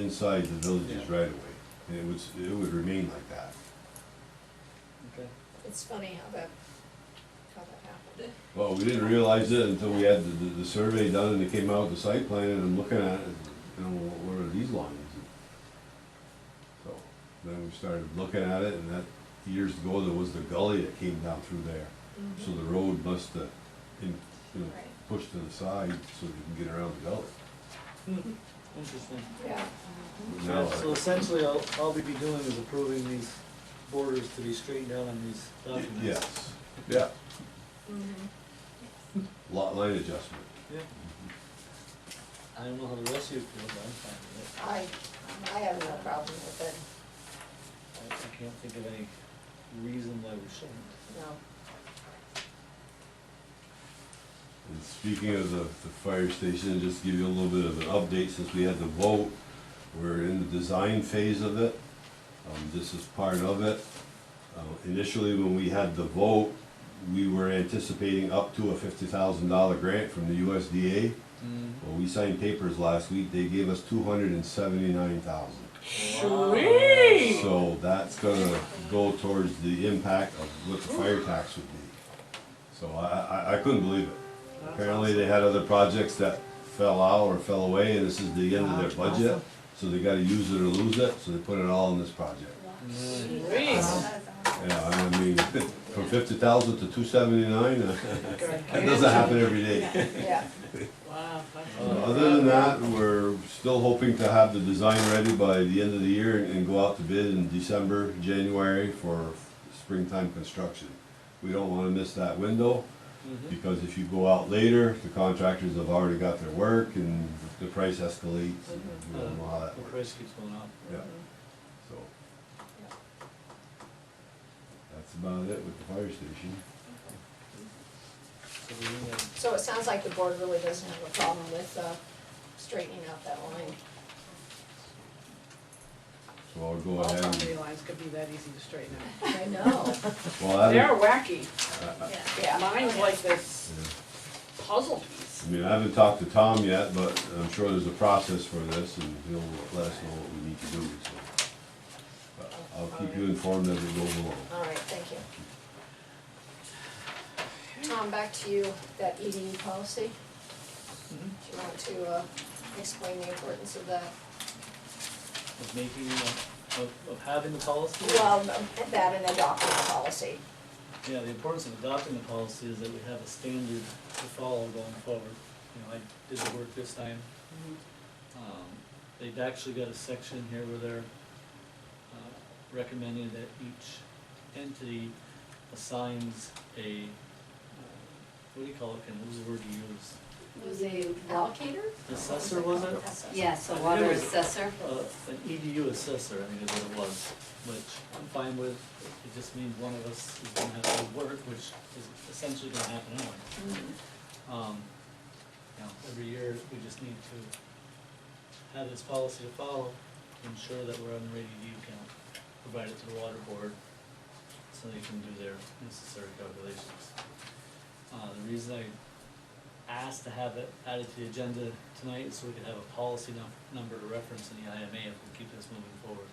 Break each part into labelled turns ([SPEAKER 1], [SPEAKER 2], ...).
[SPEAKER 1] inside the village's
[SPEAKER 2] Yeah.
[SPEAKER 1] right of way. And it was, it would remain like that.
[SPEAKER 2] Okay.
[SPEAKER 3] It's funny how that, how that happened.
[SPEAKER 1] Well, we didn't realize it until we had the, the, the survey done and it came out, the site plan, and I'm looking at it, you know, what what are these lines? So, then we started looking at it, and that, years ago, there was the gully that came down through there.
[SPEAKER 3] Mm-hmm.
[SPEAKER 1] So the road must have, in, you know,
[SPEAKER 3] Right.
[SPEAKER 1] pushed to the side so you can get around the gully.
[SPEAKER 2] Interesting.
[SPEAKER 3] Yeah,
[SPEAKER 1] Now,
[SPEAKER 2] So essentially, all, all we'd be doing is approving these borders to be straightened out on these documents.
[SPEAKER 1] yes, yeah,
[SPEAKER 3] mhm.
[SPEAKER 1] lot line adjustment.
[SPEAKER 2] Yeah. I don't know how the rest of you feel, but I'm fine with
[SPEAKER 3] I, I have no problem with it,
[SPEAKER 2] it. I, I can't think of any reason why we shouldn't.
[SPEAKER 3] no.
[SPEAKER 1] And speaking of the, the fire station, just to give you a little bit of an update since we had the vote. We're in the design phase of it. Um, this is part of it. Uh, initially, when we had the vote, we were anticipating up to a fifty thousand dollar grant from the USDA. Well, we signed papers last week. They gave us two hundred and seventy-nine thousand.
[SPEAKER 4] Sweet.
[SPEAKER 1] So that's gonna go towards the impact of what the fire tax would be. So I, I, I couldn't believe it. Apparently they had other projects that fell out or fell away and this is the end of their budget. So they gotta use it or lose it, so they put it all in this project.
[SPEAKER 2] Nice.
[SPEAKER 4] Sweet.
[SPEAKER 1] Yeah, I mean, from fifty thousand to two seventy-nine, that doesn't happen every day.
[SPEAKER 3] Yeah,
[SPEAKER 4] Wow. that's-
[SPEAKER 1] Uh, Other than that, we're still hoping to have the design ready by the end of the year and go out to bid in December, January for springtime construction. We don't wanna miss that window,
[SPEAKER 2] Mhm.
[SPEAKER 1] because if you go out later, the contractors have already got their work and the price escalates, and we don't know how that
[SPEAKER 2] The
[SPEAKER 1] works,
[SPEAKER 2] price keeps going up.
[SPEAKER 1] yeah, so. That's about it with the fire station.
[SPEAKER 2] So we need to-
[SPEAKER 3] so it sounds like the board really doesn't have a problem with, uh, straightening out that line.
[SPEAKER 1] So I'll go
[SPEAKER 4] All
[SPEAKER 1] ahead
[SPEAKER 4] property
[SPEAKER 1] and,
[SPEAKER 4] lines could be that easy to straighten out.
[SPEAKER 3] I know,
[SPEAKER 1] well, I
[SPEAKER 4] They're
[SPEAKER 1] haven't,
[SPEAKER 4] wacky.
[SPEAKER 3] yeah.
[SPEAKER 4] Mine's like this
[SPEAKER 1] yeah.
[SPEAKER 4] puzzle piece.
[SPEAKER 1] I mean, I haven't talked to Tom yet, but I'm sure there's a process for this and he'll let us know what we need to do, so. But I'll keep you informed as it goes along.
[SPEAKER 3] All right, thank you. Tom, back to you, that EDU policy. Do you want to, uh, explain the importance of that?
[SPEAKER 2] Of making, of, of- of having the policy.
[SPEAKER 3] Well, that and adopting the policy.
[SPEAKER 2] Yeah, the importance of adopting the policy is that we have a standard to follow going forward. You know, I did the work this time. Um, They've actually got a section here where they're uh, recommending that each entity assigns a, uh, what do you call it, Ken? what was the word you used?
[SPEAKER 5] Was a,
[SPEAKER 3] Allocator?
[SPEAKER 2] Assessor, was it?
[SPEAKER 5] yes, a water assessor.
[SPEAKER 2] Uh, An EDU assessor, I think is what it was, which I'm fine with. It just means one of us is gonna have to work, which is essentially gonna happen anyway. Um, you know, every year, we just need to have this policy to follow, to ensure that we're on the ready view count, provide it to the water board, so they can do their necessary calculations. Uh, the reason I asked to have it added to the agenda tonight is so we could have a policy num- number to reference in the IMA if we keep this moving forward.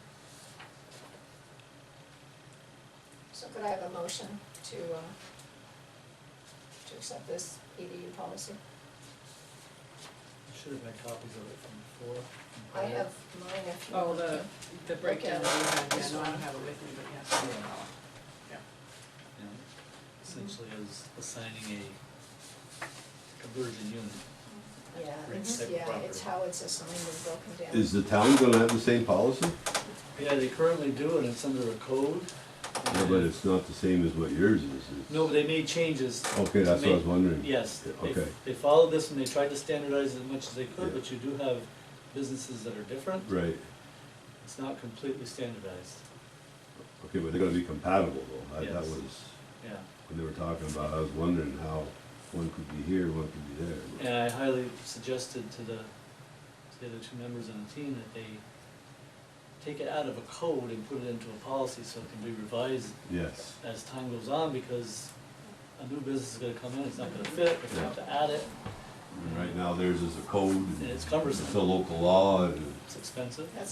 [SPEAKER 3] So could I have a motion to, uh, to accept this EDU policy?
[SPEAKER 2] I should have had copies of it from before. from
[SPEAKER 3] I
[SPEAKER 2] prior.
[SPEAKER 3] have mine if you.
[SPEAKER 4] Oh,
[SPEAKER 3] want
[SPEAKER 4] the,
[SPEAKER 3] to.
[SPEAKER 4] the breakdown that you had, yeah, no, I don't have it with me, but yes.
[SPEAKER 2] you know, essentially is assigning a conversion unit.
[SPEAKER 3] Yeah,
[SPEAKER 2] Rich
[SPEAKER 3] it's,
[SPEAKER 2] type of
[SPEAKER 3] yeah,
[SPEAKER 2] property.
[SPEAKER 3] it's how it's assigned and broken down.
[SPEAKER 1] Is the town gonna have the same policy?
[SPEAKER 2] Yeah, they currently do it, it's under a code.
[SPEAKER 1] No, but it's not the same as what yours is. it's-
[SPEAKER 2] No, but they made changes.
[SPEAKER 1] Okay, that's what I was wondering.
[SPEAKER 2] Yes, they,
[SPEAKER 1] Okay.
[SPEAKER 2] they followed this and they tried to standardize as much as they could,
[SPEAKER 1] Yeah.
[SPEAKER 2] but you do have businesses that are different.
[SPEAKER 1] Right,
[SPEAKER 2] It's not completely standardized,
[SPEAKER 1] okay, but they're gonna be compatible though. I- That
[SPEAKER 2] Yes.
[SPEAKER 1] was,
[SPEAKER 2] yeah.
[SPEAKER 1] when they were talking about, I was wondering how one could be here, one could be there.
[SPEAKER 2] And I highly suggested to the, to the other two members on the team that they take it out of a code and put it into a policy so it can be revised
[SPEAKER 1] Yes,
[SPEAKER 2] as time goes on, because a new business is gonna come in, it's not gonna fit, we have to add it. And right now theirs is a code,
[SPEAKER 1] and it's
[SPEAKER 2] it's a
[SPEAKER 1] cumbersome,
[SPEAKER 2] local law, and
[SPEAKER 1] it's expensive.
[SPEAKER 3] That's